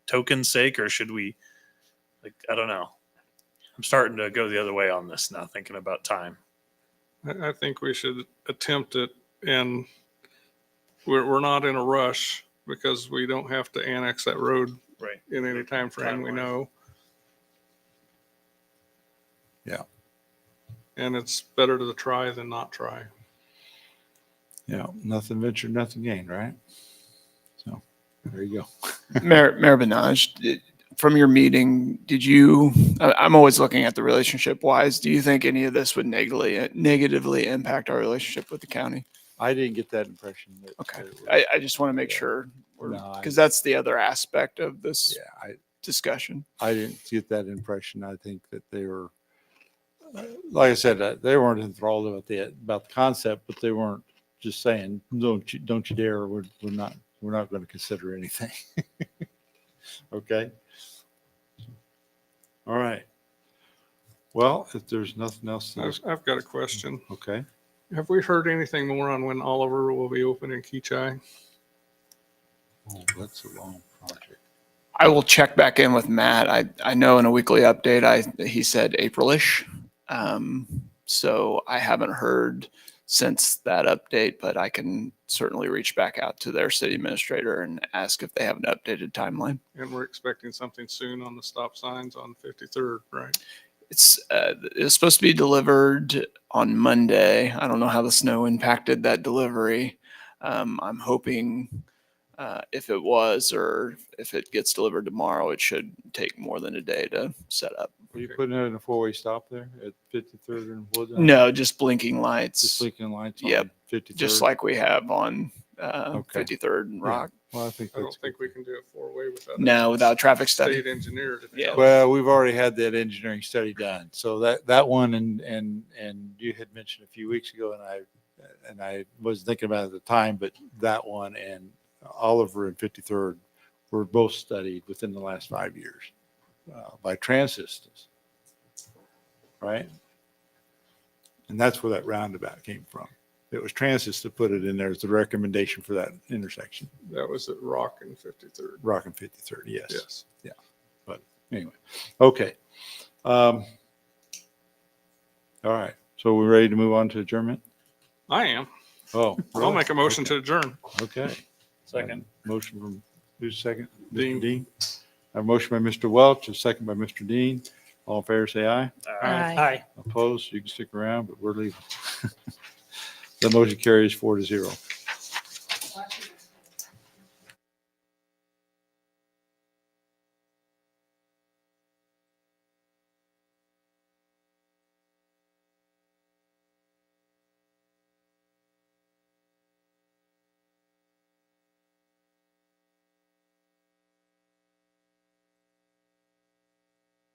token's sake, or should we? Like, I don't know. I'm starting to go the other way on this now, thinking about time. I, I think we should attempt it and we're, we're not in a rush because we don't have to annex that road Right. in any time frame we Timeline. know. Yeah. And it's better to try than not try. Yeah, nothing ventured, nothing gained, right? So there you go. Mayor, Mayor Benaj, did- from your meeting, did you, I- I'm always looking at the relationship wise, do you think any of this would negatively, negatively impact our relationship with the county? I didn't get that impression. that- Okay. that it was- I, I just want to make Yeah. sure, No, I- because that's the other aspect of this Yeah, I, discussion. I didn't get that impression. I think that they were, uh, like I said, uh, they weren't enthralled about the, about the concept, but they weren't just saying, don't you, don't you dare, we're, we're not, we're not going to consider anything. Okay? All right. Well, if there's nothing else, to I've, I've got a question. okay, Have we heard anything more on when Oliver will be open in Keachai? oh, that's a long project. I will check back in with Matt. I, I know in a weekly update, I, he said Aprilish. Um, so I haven't heard since that update, but I can certainly reach back out to their city administrator and ask if they have an updated timeline. And we're expecting something soon on the stop signs on 53rd, right? It's uh, it's supposed to be delivered on Monday. I don't know how the snow impacted that delivery. Um, I'm hoping uh, if it was or if it gets delivered tomorrow, it should take more than a day to set up. Are you Okay. putting it in a four-way stop there at 53rd and Woodland? No, just blinking lights, Just just, leaking lights on Yep, 53rd? like we have on uh, Okay. 53rd and Yeah. Rock. Well, I think I don't that's. think we can do it four-way without. a No, without traffic study. State engineer. to Yeah. tell us. Well, we've already had that engineering study done. So that, that one and, and, and you had mentioned a few weeks ago and I, and I wasn't thinking about it at the time, but that one and Oliver and 53rd were both studied within the last five years uh, by Transistors. Right? And that's where that roundabout came from. It was Transist that put it in there as the recommendation for that intersection, That was at Rock and 53rd. Rock and 53rd, yes. Yes. anyway, okay. Um, all right, so we're ready to move on to adjournment? I am. Oh. I'll make a motion to adjourn. Okay. Second. Motion from, who's second? Mr. Dean. Dean. A motion by Mr. Welch, a second by Mr. Dean. All in favor, say aye. Uh, Opposed, you can stick around, but we're leaving. The motion carries four to zero.